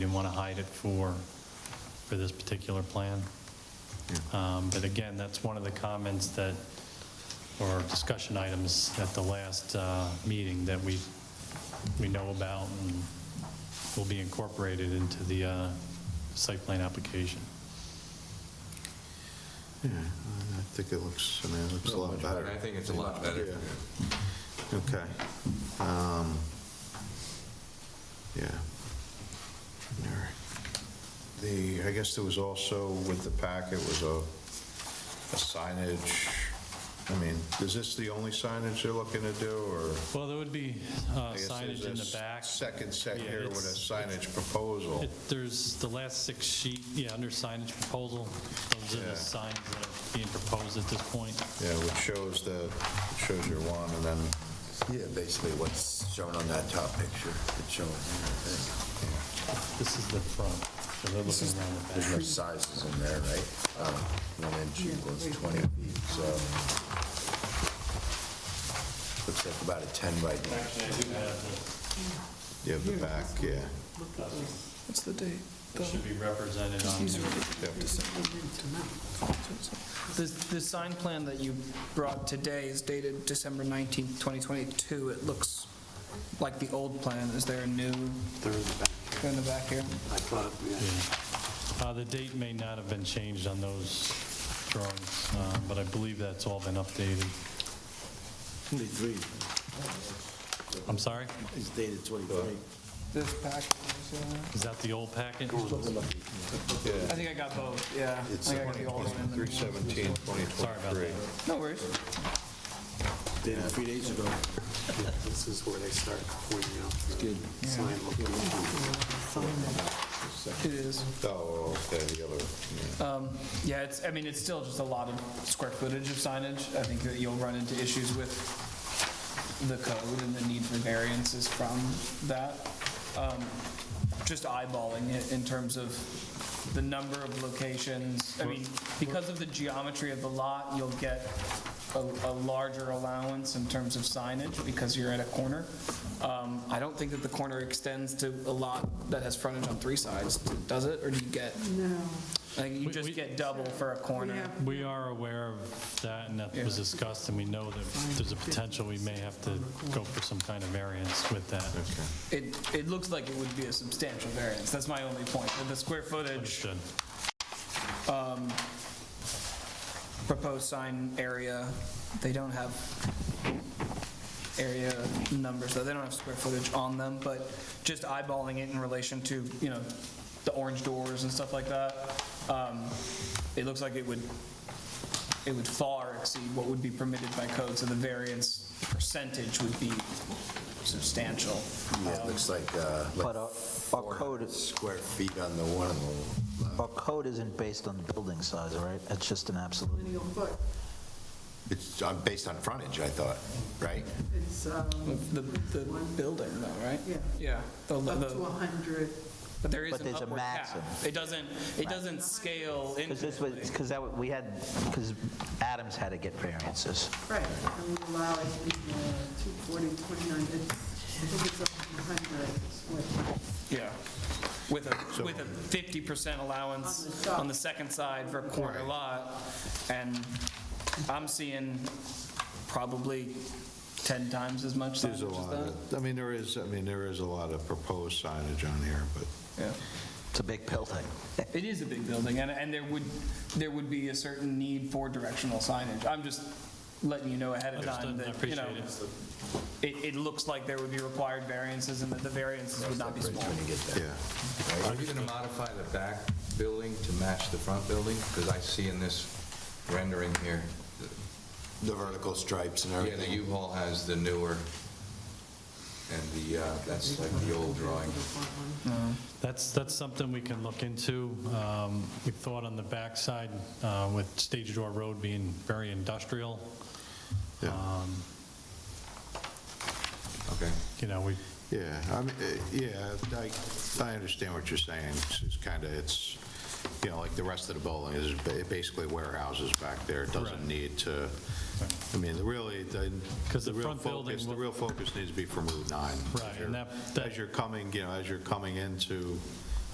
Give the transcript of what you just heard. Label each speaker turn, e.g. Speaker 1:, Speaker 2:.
Speaker 1: didn't want to hide it for, for this particular plan. Um, But again, that's one of the comments that, or discussion items at the last uh, meeting that we, we know about and will be incorporated into the uh, site plan application.
Speaker 2: Yeah, I think it looks, I mean, it looks a lot better.
Speaker 3: I think it's a lot better.
Speaker 2: Yeah. Okay. Um, Yeah. All right. The, I guess there was also with the packet was a a signage. I mean, is this the only signage they're looking to do, or?
Speaker 1: Well, there would be uh,
Speaker 2: I guess
Speaker 1: signage
Speaker 2: there's
Speaker 1: in
Speaker 2: a
Speaker 1: the back.
Speaker 2: Second set
Speaker 1: Yeah,
Speaker 2: here with a
Speaker 1: it's-
Speaker 2: signage proposal.
Speaker 1: It- There's the last six sheet, yeah, under signage proposal, those are
Speaker 2: Yeah.
Speaker 1: the signs that are being proposed at this point.
Speaker 2: Yeah, which shows the, shows your one, and then,
Speaker 3: Yeah, basically what's shown on that top picture, it's shown,
Speaker 1: This is the front, so they're looking around the back.
Speaker 3: there's no sizes in there, right? Um, One inch equals 20 feet, so looks like about a 10 by 10.
Speaker 1: Actually, I do have,
Speaker 2: you have the back, yeah.
Speaker 4: What's the date?
Speaker 1: it should be represented on
Speaker 4: These are
Speaker 1: there.
Speaker 4: The, the sign plan that you brought today is dated December 19th, 2022. It looks like the old plan. Is there a new? They're in the back here.
Speaker 1: Uh, The date may not have been changed on those drawings, uh, but I believe that's all been updated.
Speaker 5: 23,
Speaker 1: I'm sorry?
Speaker 5: it's dated 23.
Speaker 4: This pack, is, uh,
Speaker 1: Is that the old packet?
Speaker 4: I think I got both, yeah. I think I got the old one and the new one.
Speaker 2: 317, 2023.
Speaker 1: Sorry about that.
Speaker 4: No worries.
Speaker 5: Dated three days ago.
Speaker 6: This is where they start pointing out the sign location.
Speaker 4: It is.
Speaker 2: Oh, okay, the other, yeah.
Speaker 4: Yeah, it's, I mean, it's still just a lot of square footage of signage. I think that you'll run into issues with the code and the need for variances from that. Um, Just eyeballing it in terms of the number of locations. I mean, because of the geometry of the lot, you'll get a, a larger allowance in terms of signage because you're at a corner. Um, I don't think that the corner extends to a lot that has frontage on three sides, does it? Or do you get?
Speaker 7: No,
Speaker 4: I think you
Speaker 1: We- we-
Speaker 4: just get double for a
Speaker 7: we
Speaker 4: corner.
Speaker 7: have,
Speaker 1: We are aware of that, and that was
Speaker 4: Yeah.
Speaker 1: discussed, and we know that there's a potential we may have to go for some kind of variance with that.
Speaker 4: It, it looks like it would be a substantial variance, that's my only point. With The square footage,
Speaker 1: Understood.
Speaker 4: proposed sign area, they don't have area numbers, so they don't have square footage on them, but just eyeballing it in relation to, you know, the orange doors and stuff like that, um, it looks like it would, it would far exceed what would be permitted by code, so the variance percentage would be substantial.
Speaker 3: Yeah, it looks like, uh,
Speaker 8: But
Speaker 3: like
Speaker 8: our- our code,
Speaker 3: 400 square feet on the one of them.
Speaker 8: our code isn't based on the building size, all right? It's just an absolute.
Speaker 7: lineal foot,
Speaker 3: It's uh, based on frontage, I thought, right?
Speaker 7: it's, um,
Speaker 4: The, the building though, right?
Speaker 7: yeah,
Speaker 4: Yeah, the,
Speaker 7: up to
Speaker 4: the,
Speaker 7: 100.
Speaker 4: but there is
Speaker 8: But
Speaker 4: an
Speaker 8: there's a
Speaker 4: upward cap.
Speaker 8: maximum.
Speaker 4: It doesn't, it doesn't scale
Speaker 8: Because this was,
Speaker 4: infinitely.
Speaker 8: because that, wa- we had, because Adams had to get variances.
Speaker 7: Right, and we allow it in uh, 240, 29, it's, I think it's up to 100. is what-
Speaker 4: Yeah. With a, with a 50%
Speaker 7: On the
Speaker 4: allowance
Speaker 7: side.
Speaker 4: on the second side for a corner lot, and I'm seeing probably 10 times as much signage
Speaker 2: There's
Speaker 4: as
Speaker 2: a lot
Speaker 4: that.
Speaker 2: of, I mean, there is, I mean, there is a lot of proposed signage on here, but
Speaker 4: Yeah.
Speaker 8: It's a big building.
Speaker 4: It is a big building, and, and there would, there would be a certain need for directional signage. I'm just letting you know ahead of time
Speaker 1: Understood, I
Speaker 4: that, you know,
Speaker 1: appreciate it.
Speaker 4: it, it looks like there would be required variances and that the variances would not be small.
Speaker 2: yeah.
Speaker 9: Are you going to modify the back building to match the front building? Because I see in this rendering here,
Speaker 3: The vertical stripes and
Speaker 9: yeah, the
Speaker 3: everything.
Speaker 9: U-Haul has the newer, and the, uh, that's like the old drawing.
Speaker 1: That's, that's something we can look into. Um, We thought on the backside, uh, with Stage Door Road being very industrial,
Speaker 2: Yeah,
Speaker 1: Um,
Speaker 9: Okay.
Speaker 1: you know, we,
Speaker 2: yeah, I mean, eh, yeah, I, I understand what you're saying. It's- It's kind of, it's, you know, like the rest of the building is ba- basically warehouses back there. It
Speaker 1: Correct.
Speaker 2: doesn't need to, I mean, the really, the.
Speaker 1: 'Cause the
Speaker 2: real
Speaker 1: front building
Speaker 2: focus- The
Speaker 1: will-
Speaker 2: real focus needs to be from Route 9.
Speaker 1: Right,
Speaker 2: As
Speaker 1: and
Speaker 2: you're-
Speaker 1: that- that-
Speaker 2: As you're coming, you know, as you're coming into